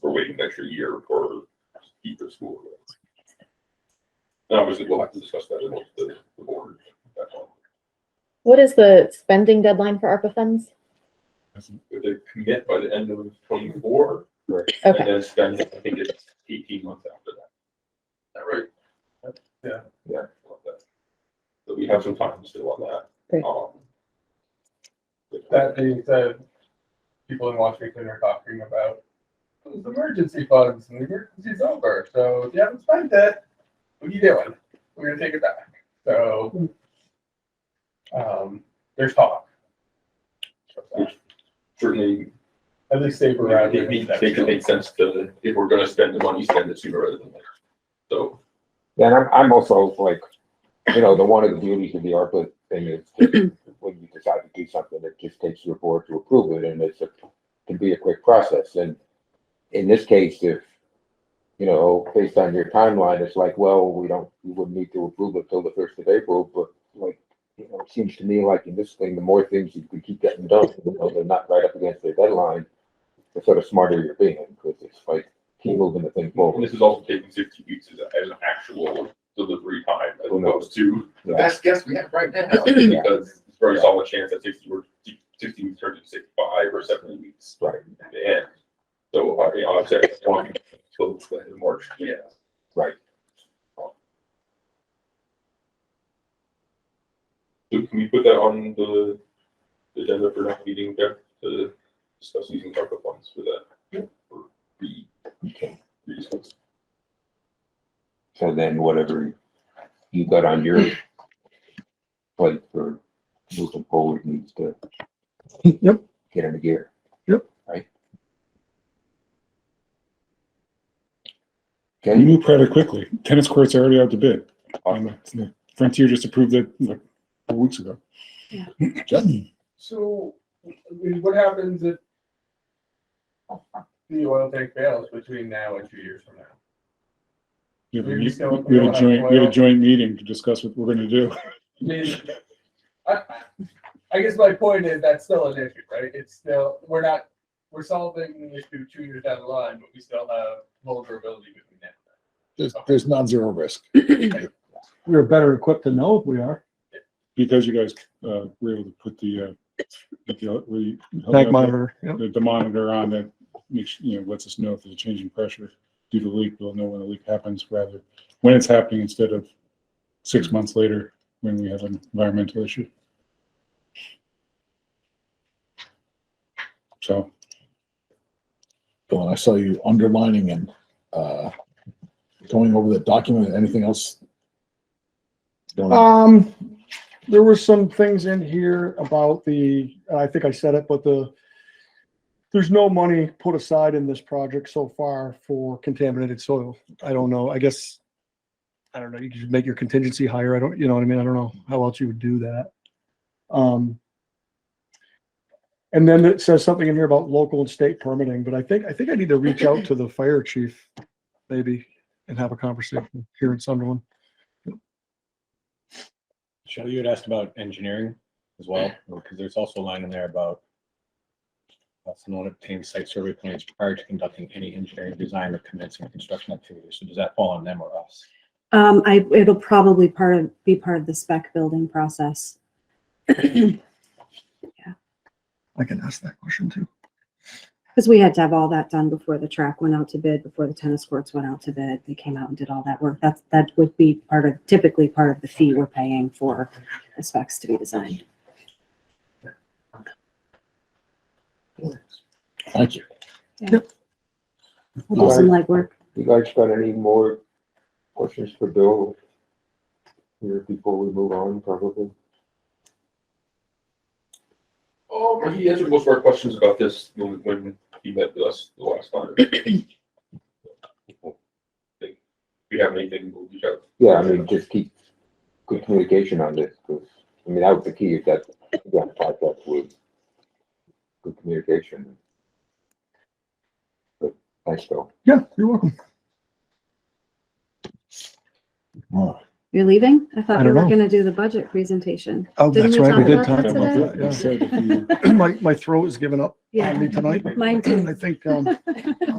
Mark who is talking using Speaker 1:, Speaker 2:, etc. Speaker 1: we're waiting an extra year for either school. And obviously, we'll have to discuss that with the, the board. at that point.
Speaker 2: What is the spending deadline for ARPA funds?
Speaker 1: If they commit by the end of twenty-four, and
Speaker 2: Okay,
Speaker 1: then spend, I think it's eighteen months after that. Is that right? Yeah. Yeah. So we have some time still on
Speaker 2: Great.
Speaker 1: that. Um,
Speaker 3: That being said, people in Washington are talking about those emergency funds and the emergency's over. So if you haven't spent it, what are you doing? We're gonna take it back. So um, there's talk.
Speaker 1: Certainly,
Speaker 3: At least they were around.
Speaker 1: it makes, makes sense to, if we're gonna spend the money, spend it sooner rather than later. So
Speaker 4: Yeah, and I'm, I'm also like, you know, the one of the beauties of the ARPA thing is that when you decide to do something, it just takes your board to approve it and it's a, can be a quick process. And in this case, if, you know, based on your timeline, it's like, well, we don't, we wouldn't need to approve it till the first of April, but like, you know, it seems to me like in this thing, the more things you can keep getting done, you know, they're not right up against their deadline, the sort of smarter you're being, because it's like, keep moving the thing
Speaker 1: And
Speaker 4: forward.
Speaker 1: this is also taking sixty weeks as, a- as an actual delivery time as
Speaker 4: Who knows?
Speaker 1: opposed to the
Speaker 4: Yeah.
Speaker 1: best guess we have right now. Because it's a very solid chance that sixty or sixty weeks turns into sixty-five or seventy weeks.
Speaker 4: Right.
Speaker 1: At the end. So, I, you know, I'd say it's one till the end of March, yeah.
Speaker 4: Right.
Speaker 1: So can we put that on the the agenda for next meeting, Jeff, to discuss using ARPA funds for that? Or re-
Speaker 4: Okay.
Speaker 1: reasons?
Speaker 4: So then whatever you got on your plate for moving forward needs to
Speaker 5: Yep.
Speaker 4: get into gear.
Speaker 5: Yep.
Speaker 4: Right?
Speaker 5: We
Speaker 4: Okay,
Speaker 5: move rather quickly. Tennis courts are already out to bid.
Speaker 4: awesome.
Speaker 5: Um, Frontier just approved it like four weeks ago.
Speaker 2: Yeah.
Speaker 3: So I mean, what happens if the oil tank fails between now and two years from now?
Speaker 5: We have a
Speaker 3: Maybe
Speaker 5: meet-
Speaker 3: so.
Speaker 5: we have a joint, we have a joint meeting to discuss what we're gonna do.
Speaker 3: I mean, I, I guess my point is that's still an issue, right? It's still, we're not, we're solving the issue two years down the line, but we still have vulnerability between now.
Speaker 6: There's, there's non-zero risk.
Speaker 7: we're better equipped to know if we are.
Speaker 5: Because you guys, uh, were able to put the, uh, the, we.
Speaker 7: Tank monitor. yep.
Speaker 5: The, the monitor on that makes, you know, lets us know if there's a change in pressure due to leak. We'll know when the leak happens rather, when it's happening instead of six months later when we have an environmental issue. So.
Speaker 6: Dawn, I saw you underlining and, uh, going over the document, anything else? Going on?
Speaker 7: Um, there were some things in here about the, I think I said it, but the, there's no money put aside in this project so far for contaminated soil. I don't know, I guess, I don't know, you could make your contingency higher. I don't, you know what I mean? I don't know how else you would do that. Um, and then it says something in here about local and state permitting, but I think, I think I need to reach out to the fire chief maybe and have a conversation here in Sunderland.
Speaker 8: Shelley, you had asked about engineering as well, because there's also a line in there about uh, someone obtained site survey plans prior to conducting any engineering design or commencing construction activities. So does that fall on them or us?
Speaker 9: Um, I, it'll probably part of, be part of the spec building process.
Speaker 7: I can ask that question too.
Speaker 9: Cause we had to have all that done before the track went out to bid, before the tennis courts went out to bid. They came out and did all that work. That's, that would be part of, typically part of the fee we're paying for the specs to be designed.
Speaker 6: Thank you.
Speaker 9: We'll do some legwork.
Speaker 4: You guys got any more questions for Bill? Here before we move on, probably?
Speaker 1: Um, he answered most of our questions about this when, when he met with us the last time. Think We have anything, we'll reach out.
Speaker 4: Yeah, I mean, just keep good communication on this, because, I mean, that was the key, is that, yeah, project with good communication. But, thanks, Bill.
Speaker 7: Yeah, you're welcome.
Speaker 6: All
Speaker 9: You're leaving? I
Speaker 7: I
Speaker 9: thought we
Speaker 7: don't
Speaker 9: were
Speaker 7: know.
Speaker 9: gonna do the budget presentation.
Speaker 7: Oh,
Speaker 9: Didn't
Speaker 7: that's
Speaker 9: we
Speaker 7: right. We did
Speaker 9: talk
Speaker 7: talk
Speaker 9: about
Speaker 7: about that.
Speaker 9: that
Speaker 5: You
Speaker 7: yeah.
Speaker 5: said if you
Speaker 7: My, my throat is giving up
Speaker 9: Yeah,
Speaker 7: on me tonight.
Speaker 9: mine too.
Speaker 7: I think, um,